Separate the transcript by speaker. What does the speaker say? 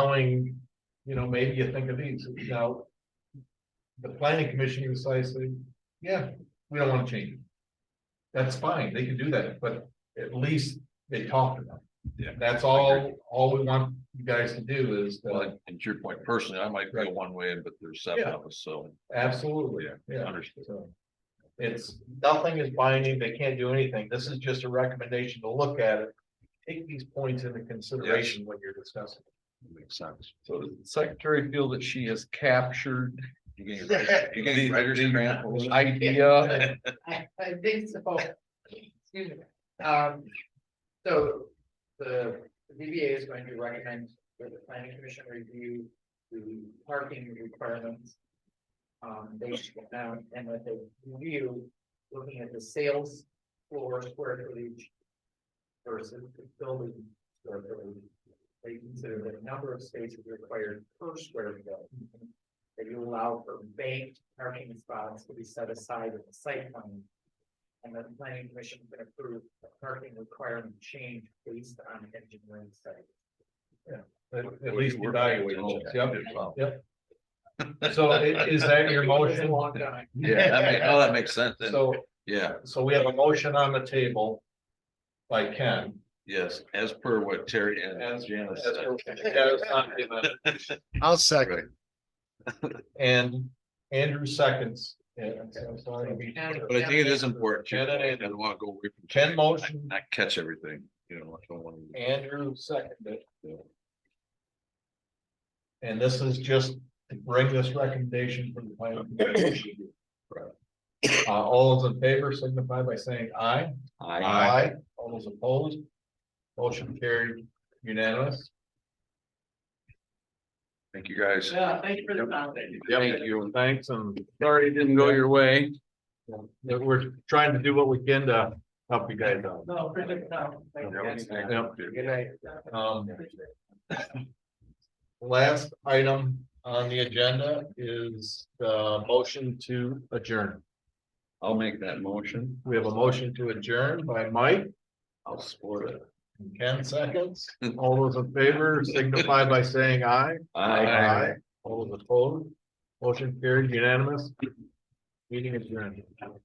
Speaker 1: allowing, you know, maybe you think of these now. The planning commission can say, say, yeah, we don't wanna change it. That's fine, they can do that, but at least they talked about it.
Speaker 2: Yeah.
Speaker 1: That's all, all we want you guys to do is,
Speaker 2: Well,
Speaker 1: uh,
Speaker 2: and- and to your point personally, I might go one way, but there's seven of us, so.
Speaker 1: absolutely, yeah.
Speaker 2: Understood.
Speaker 1: So It's, nothing is binding, they can't do anything, this is just a recommendation to look at it. Take these points into consideration when you're discussing.
Speaker 2: Makes sense. So does the secretary feel that she has captured? You getting you getting writer's cramp over the Idea.
Speaker 3: I, I think so. Excuse me. Um, so the DBA is going to recommend for the planning commission review the parking requirements. Um, they should go down and that they review, looking at the sales floor square footage versus the building square footage. They consider the number of spaces required per square foot that you allow for banked parking spots to be set aside in the site plan. And then the planning commission can approve a parking requirement change based on engineering study.
Speaker 1: At at least evaluate it, yep.
Speaker 2: Wow.
Speaker 1: So i- is that your motion?
Speaker 3: Long time.
Speaker 2: Yeah, that makes, oh, that makes sense. then.
Speaker 1: So,
Speaker 2: Yeah,
Speaker 1: so we have a motion on the table by Ken.
Speaker 2: yes, as per what Terry and
Speaker 1: as-
Speaker 2: Janice
Speaker 1: as
Speaker 2: said.
Speaker 1: per- as on the-
Speaker 4: I'll second.
Speaker 1: And Andrew seconds. And so I'm sorry, we-
Speaker 3: And-
Speaker 2: But I think it is important.
Speaker 1: Ken and
Speaker 2: I
Speaker 1: Andrew.
Speaker 2: don't want to go away from.
Speaker 1: Ken motion,
Speaker 2: Not catch everything, you know, I don't want to.
Speaker 1: Andrew seconded. And this is just to bring this recommendation from the planning. commission. Uh, all those in favor signify by saying aye. Aye. All those opposed? Motion carried unanimous.
Speaker 2: Thank you, guys.
Speaker 3: Yeah, thank you for the foundation.
Speaker 1: Thank you, and thanks, and
Speaker 2: Sorry it didn't
Speaker 1: go
Speaker 2: your way.
Speaker 1: that we're trying to do what we can to help you guys out.
Speaker 3: No, for the, no, thank you guys. Good night.
Speaker 1: Um, Last item on the agenda is the motion to adjourn.
Speaker 2: I'll make that motion.
Speaker 1: We have a motion to adjourn by Mike
Speaker 2: I'll support it.
Speaker 1: in ten seconds. All those in favor signify by saying aye. All those opposed, motion carried unanimous. Meeting adjourned.